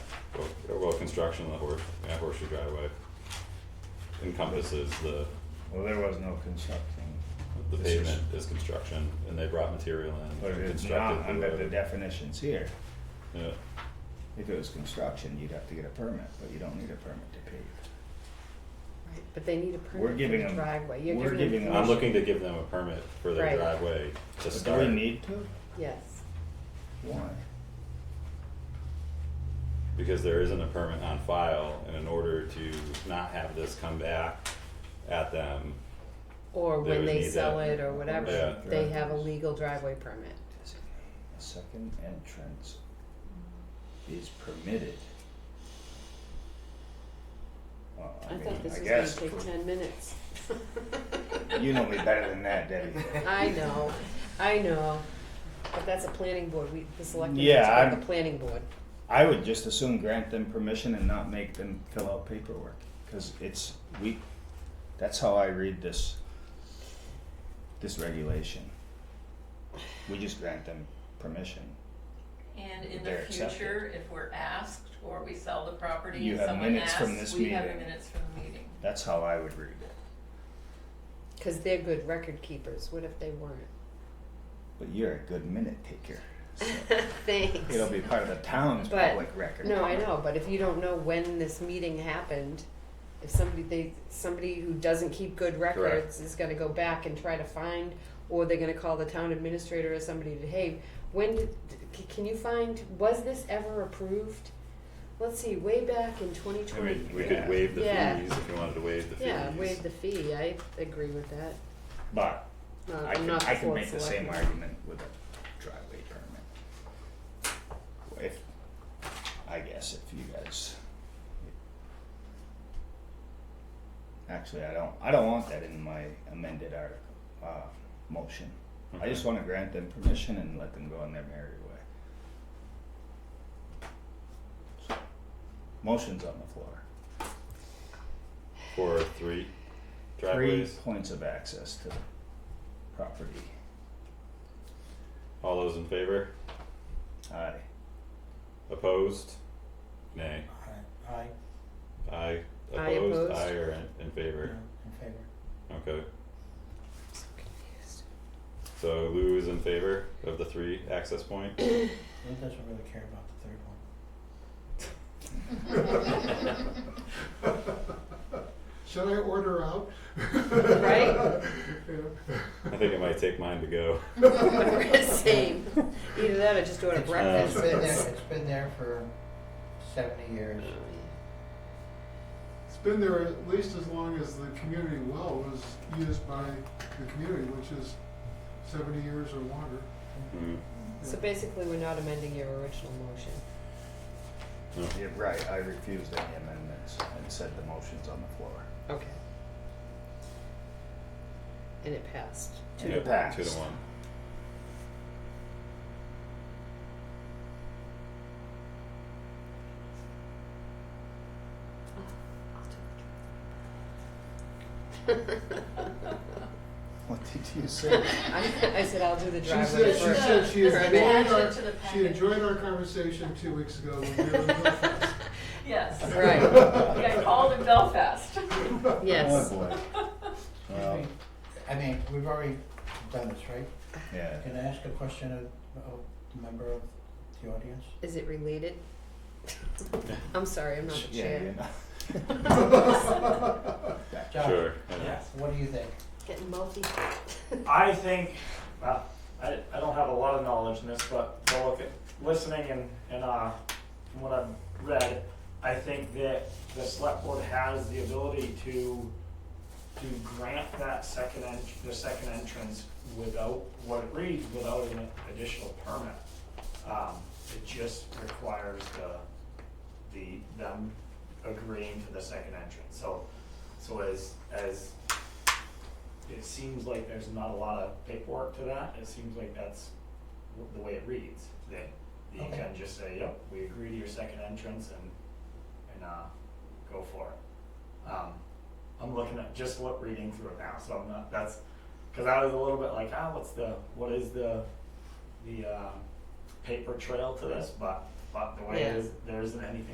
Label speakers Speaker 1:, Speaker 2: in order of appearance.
Speaker 1: construction of the horse, yeah, horseshoe driveway encompasses the,
Speaker 2: Well, there was no construction,
Speaker 1: the
Speaker 2: This is-
Speaker 1: pavement is construction, and they brought material in
Speaker 2: but
Speaker 1: and
Speaker 2: it's
Speaker 1: constructed uh,
Speaker 2: not
Speaker 1: the
Speaker 2: under the
Speaker 1: road.
Speaker 2: definitions here.
Speaker 1: Yeah,
Speaker 2: If it was construction, you'd have to get a permit, but you don't need a permit to pave.
Speaker 3: Right, but they need a permit
Speaker 2: We're
Speaker 3: for
Speaker 2: giving
Speaker 3: the
Speaker 2: them-
Speaker 3: driveway. You're
Speaker 2: we're giving them-
Speaker 1: I'm looking to give them a permit for their
Speaker 3: Right.
Speaker 1: driveway to
Speaker 2: But
Speaker 1: start.
Speaker 2: Do we need to?
Speaker 3: Yes.
Speaker 2: Why?
Speaker 1: because there isn't a permit on file, and in order to not have this come back at them,
Speaker 3: Or
Speaker 1: They
Speaker 3: when
Speaker 1: would
Speaker 3: they
Speaker 1: need
Speaker 3: sell
Speaker 1: that.
Speaker 3: it or whatever,
Speaker 1: Yeah.
Speaker 3: they have a legal driveway permit.
Speaker 2: Designate A second entrance is permitted. Well, I
Speaker 3: I
Speaker 2: mean,
Speaker 3: thought this
Speaker 2: I
Speaker 3: was gonna
Speaker 2: guess,
Speaker 3: take
Speaker 2: for-
Speaker 3: ten minutes.
Speaker 2: you know me better than that, Debbie.
Speaker 3: I know, I know, but that's a planning board, we, the selectmen
Speaker 2: Yeah,
Speaker 3: is part
Speaker 2: I'm-
Speaker 3: of the planning board.
Speaker 2: I would just as soon grant them permission and not make them fill out paperwork, cause it's, we, that's how I read this, this regulation. We just grant them permission.
Speaker 4: And in
Speaker 2: They're
Speaker 4: the
Speaker 2: accepted.
Speaker 4: future, if we're asked or we sell the property
Speaker 2: You
Speaker 4: and
Speaker 2: have
Speaker 4: someone
Speaker 2: minutes from
Speaker 4: asks,
Speaker 2: this
Speaker 4: we have the
Speaker 2: meeting.
Speaker 4: minutes from the meeting.
Speaker 2: That's how I would read it,
Speaker 3: Cause they're good record keepers, what if they weren't?
Speaker 2: but you're a good minute taker.
Speaker 3: Thanks.
Speaker 2: It'll be part of the town's
Speaker 3: But-
Speaker 2: public record.
Speaker 3: No, I know, but if you don't know when this meeting happened, if somebody, they, somebody who doesn't keep good records is gonna go back and try to find, or they're gonna call the town administrator or somebody to, hey, when did, c- can you find, was this ever approved? Let's see, way back in
Speaker 1: I
Speaker 3: twenty
Speaker 1: mean,
Speaker 3: twenty,
Speaker 1: we could waive the
Speaker 3: Yeah.
Speaker 1: fees if you wanted to waive the fees.
Speaker 3: yeah, waive the fee, I agree with that,
Speaker 2: But
Speaker 3: No,
Speaker 2: I
Speaker 3: I'm
Speaker 2: can,
Speaker 3: not the
Speaker 2: I can
Speaker 3: fourth
Speaker 2: make the same
Speaker 3: selectman.
Speaker 2: argument with a driveway permit. If, I guess if you guys. Actually, I don't, I don't want that in my amended article, uh, motion. I just wanna grant them permission and let them go on their merry way. So, Motion's on the floor.
Speaker 1: For three
Speaker 2: Three
Speaker 1: driveways,
Speaker 2: points of access to the property.
Speaker 1: all those in favor,
Speaker 2: Aye.
Speaker 1: opposed, nay,
Speaker 5: Aye, aye,
Speaker 1: aye,
Speaker 3: Aye
Speaker 1: opposed,
Speaker 3: opposed.
Speaker 1: aye or in- in
Speaker 5: no,
Speaker 1: favor,
Speaker 5: in favor.
Speaker 1: okay, so Lou is in favor of the three access point,
Speaker 5: Lou doesn't really care about the third one.
Speaker 6: Should I order out?
Speaker 3: Right?
Speaker 1: I think it might take mine to go.
Speaker 3: Same, either that or just order
Speaker 2: uh,
Speaker 5: It's-
Speaker 3: breakfast.
Speaker 5: It's been there, it's been there for seventy
Speaker 3: Oh,
Speaker 5: years.
Speaker 6: It's been there at least as long as the community well was used by the community, which is seventy years or longer.
Speaker 1: Mm,
Speaker 3: So basically, we're not amending your original motion.
Speaker 1: no.
Speaker 2: Yeah, right, I refused any amendments and said the motion's on the floor.
Speaker 3: Okay. And it passed.
Speaker 2: To
Speaker 1: Yeah,
Speaker 2: the past.
Speaker 1: Two to one.
Speaker 2: What did you say?
Speaker 3: I, I said, I'll do the
Speaker 6: She
Speaker 3: driveway
Speaker 6: said, she
Speaker 3: first.
Speaker 6: said she
Speaker 4: For an
Speaker 6: enjoyed
Speaker 4: action
Speaker 6: our,
Speaker 4: to the
Speaker 6: she
Speaker 4: packet.
Speaker 6: enjoyed our conversation two weeks ago when we were in Belfast.
Speaker 4: Yes.
Speaker 3: Right.
Speaker 4: Yeah, I called in Belfast.
Speaker 2: Oh,
Speaker 3: Yes.
Speaker 2: boy. Well,
Speaker 5: I mean, we've already done this, right?
Speaker 2: yeah.
Speaker 5: Can I ask a question of, of a member of the audience?
Speaker 3: Is it related? I'm sorry, I'm not the
Speaker 2: Yeah,
Speaker 3: chair.
Speaker 2: you know.
Speaker 5: Josh,
Speaker 1: Sure. yeah.
Speaker 5: What do you think?
Speaker 3: Getting multi.
Speaker 7: I think, well, I, I don't have a lot of knowledge in this, but by look at, listening and, and uh, from what I've read, I think that the select board has the ability to, to grant that second en, the second entrance without, what it reads, without an additional permit. Um, it just requires the, the, them agreeing to the second entrance, so, so as, as it seems like there's not a lot of paperwork to that, it seems like that's w- the way it reads, that you
Speaker 5: Okay.
Speaker 7: can just say, yep, we agree to your second entrance and, and, uh, go for it. Um, I'm looking at, just what, reading through it now, so I'm not, that's, cause I was a little bit like, ah, what's the, what is the, the, um, paper trail to this, but, but the way it
Speaker 3: Yeah.
Speaker 7: is, there isn't anything